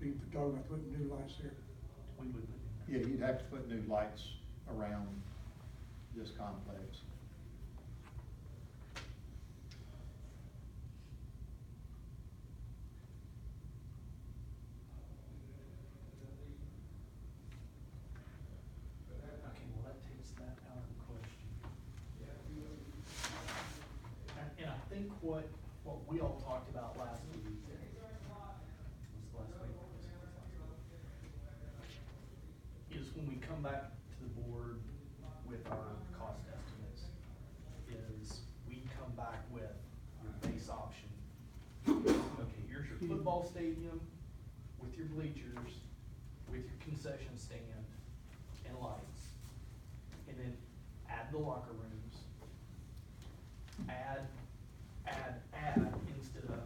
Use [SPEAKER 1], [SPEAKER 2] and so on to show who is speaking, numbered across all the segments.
[SPEAKER 1] be talking about putting new lights there.
[SPEAKER 2] When would it?
[SPEAKER 3] Yeah, you'd have to put new lights around this complex.
[SPEAKER 2] Okay, well, that takes that out of the question. And- And I think what, what we all talked about last week. was it last week? Is when we come back to the board with our cost estimates, is we come back with your base option. Okay, here's your football stadium with your bleachers, with your concession stand and lights. And then add the locker rooms. Add, add, add instead of,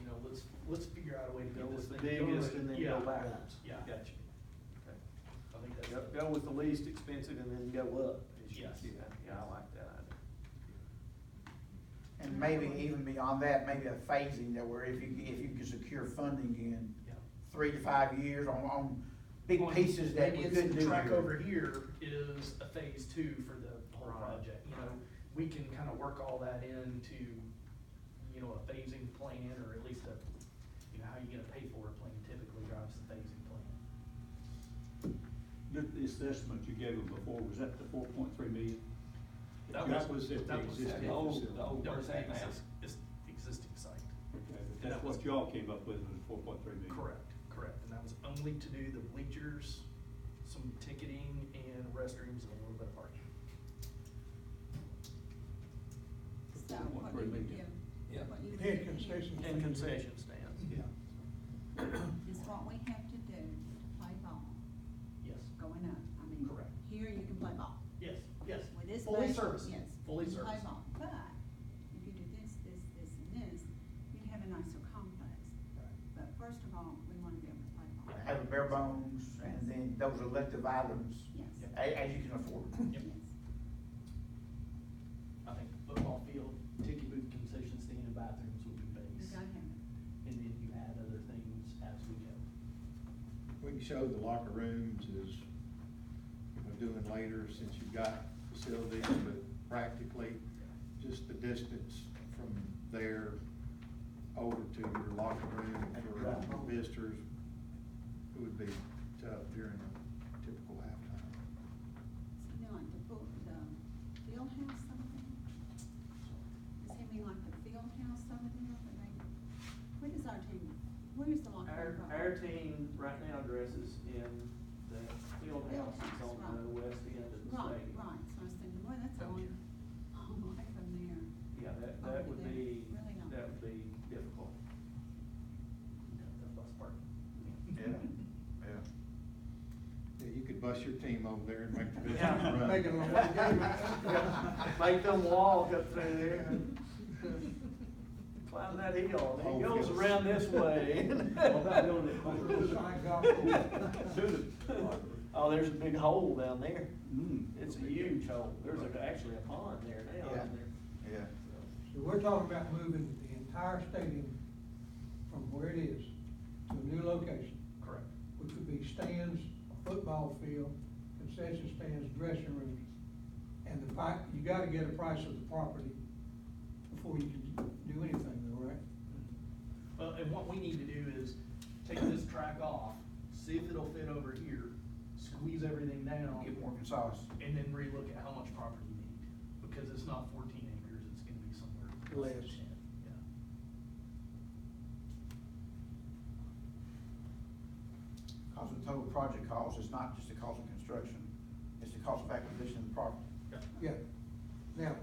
[SPEAKER 2] you know, let's, let's figure out a way to
[SPEAKER 4] Go
[SPEAKER 2] get this
[SPEAKER 4] with
[SPEAKER 2] thing.
[SPEAKER 4] the biggest and then go
[SPEAKER 2] Yeah,
[SPEAKER 4] backwards.
[SPEAKER 2] Yeah,
[SPEAKER 4] Gotcha.
[SPEAKER 2] gotcha. I think that's.
[SPEAKER 4] Go, go with the least expensive and then go up. as you
[SPEAKER 2] Yes.
[SPEAKER 4] do that. Yeah, I like that idea.
[SPEAKER 5] And maybe even beyond that, maybe a phasing that where if you, if you can secure funding in
[SPEAKER 2] Yeah.
[SPEAKER 5] three to five years on, on big
[SPEAKER 2] Well,
[SPEAKER 5] pieces that
[SPEAKER 2] maybe
[SPEAKER 5] we
[SPEAKER 2] it's
[SPEAKER 5] couldn't
[SPEAKER 2] the
[SPEAKER 5] do
[SPEAKER 2] Track
[SPEAKER 5] here.
[SPEAKER 2] over here is a phase two for the whole
[SPEAKER 4] Right.
[SPEAKER 2] project, you know, we can kind of work all that into, you know, a phasing plan, or at least a, you know, how you gonna pay for a plan typically drives the phasing plan.
[SPEAKER 6] The, the assessment you gave them before, was that the four point three million?
[SPEAKER 2] That
[SPEAKER 6] That
[SPEAKER 2] was-
[SPEAKER 6] was at the
[SPEAKER 2] that was-
[SPEAKER 6] existing
[SPEAKER 2] The
[SPEAKER 4] old-
[SPEAKER 6] facility.
[SPEAKER 4] the old-
[SPEAKER 2] No,
[SPEAKER 4] Where's that
[SPEAKER 2] it's
[SPEAKER 4] now?
[SPEAKER 2] exist- It's the existing site.
[SPEAKER 6] Okay, but
[SPEAKER 2] that
[SPEAKER 6] that's
[SPEAKER 2] was-
[SPEAKER 6] what y'all came up with, was four point three million.
[SPEAKER 2] Correct, correct, and that was only to do the bleachers, some ticketing and restrooms and a little bit of parking.
[SPEAKER 7] So
[SPEAKER 6] What
[SPEAKER 7] what
[SPEAKER 6] we're
[SPEAKER 7] do you
[SPEAKER 6] leaving.
[SPEAKER 7] give?
[SPEAKER 4] Yeah.
[SPEAKER 7] what you
[SPEAKER 1] Yeah,
[SPEAKER 7] give
[SPEAKER 1] concession
[SPEAKER 4] And concession stands.
[SPEAKER 1] Yeah.
[SPEAKER 7] Is what we have to do to play ball
[SPEAKER 2] Yes,
[SPEAKER 7] going up. I mean,
[SPEAKER 2] Correct.
[SPEAKER 7] here you can play ball.
[SPEAKER 2] yes, yes,
[SPEAKER 7] With this
[SPEAKER 2] fully
[SPEAKER 7] budget,
[SPEAKER 2] serviced,
[SPEAKER 7] yes,
[SPEAKER 2] fully
[SPEAKER 7] you can play
[SPEAKER 2] serviced.
[SPEAKER 7] ball. But if you do this, this, this, and this, you'd have a nicer complex. But first of all, we want to be able to play ball.
[SPEAKER 5] Have a bare bones and then those elective items,
[SPEAKER 7] Yes.
[SPEAKER 2] Yep.
[SPEAKER 5] a, as you can afford.
[SPEAKER 2] Yep.
[SPEAKER 7] Yes.
[SPEAKER 2] I think football field, ticket booth, concession stand, and bathrooms would be
[SPEAKER 7] You
[SPEAKER 2] base,
[SPEAKER 7] gotta have
[SPEAKER 2] and
[SPEAKER 7] it.
[SPEAKER 2] then you add other things as we go.
[SPEAKER 3] We can show the locker rooms is, we're doing later since you've got facilities, but practically, just the distance from there over to your locker room for visitors, it would be tough during a typical halftime.
[SPEAKER 7] So then like the pool, the field house over there? Does he mean like the field house over there where they, where does our team, where's the locker
[SPEAKER 4] Our,
[SPEAKER 7] room?
[SPEAKER 4] our team right now dresses in the field house that's on the west end of the
[SPEAKER 7] Right,
[SPEAKER 4] stadium.
[SPEAKER 7] right, so I was thinking, boy, that's a
[SPEAKER 4] Oh,
[SPEAKER 7] long,
[SPEAKER 4] yeah.
[SPEAKER 7] long way from there.
[SPEAKER 4] Yeah, that,
[SPEAKER 7] Over
[SPEAKER 4] that would
[SPEAKER 7] there.
[SPEAKER 4] be,
[SPEAKER 7] Really not.
[SPEAKER 4] that would be difficult.
[SPEAKER 2] The bus part.
[SPEAKER 3] yeah. You could bus your team over there and make the visitors
[SPEAKER 4] Yeah.
[SPEAKER 3] run.
[SPEAKER 1] Make it a
[SPEAKER 4] Yeah, Make them walk up through there. Climb that hill, and
[SPEAKER 3] Whole
[SPEAKER 4] it goes
[SPEAKER 3] fields.
[SPEAKER 4] around this way.
[SPEAKER 6] Well, that building at Culver Hill.
[SPEAKER 4] Dude, Oh, there's a big hole down there.
[SPEAKER 6] Mm.
[SPEAKER 4] It's a huge hole. There's a- actually a pond there now,
[SPEAKER 3] Yeah.
[SPEAKER 4] isn't there?
[SPEAKER 3] Yeah.
[SPEAKER 1] So we're talking about moving the entire stadium from where it is to a new location,
[SPEAKER 2] Correct.
[SPEAKER 1] which would be stands, a football field, concession stands, dressing rooms. And the pri, you gotta get a price of the property before you can do anything though, right?
[SPEAKER 2] Well, and what we need to do is take this track off, see if it'll fit over here, squeeze everything down,
[SPEAKER 5] Get more concise.
[SPEAKER 2] and then relook at how much property you need, because it's not fourteen acres, it's gonna be somewhere. close to
[SPEAKER 1] Less.
[SPEAKER 2] 10, Yeah.
[SPEAKER 5] Cause the total project cost is not just the cost of construction, it's the cost of acquisition of the property.
[SPEAKER 1] Yeah. Now,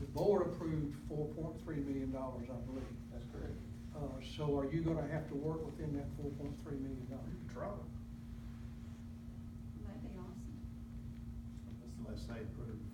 [SPEAKER 1] the board approved four point three million dollars, I believe.
[SPEAKER 5] That's correct.
[SPEAKER 1] Uh, so are you gonna have to work within that four point three million dollars?
[SPEAKER 7] That'd be awesome.
[SPEAKER 3] Unless they approve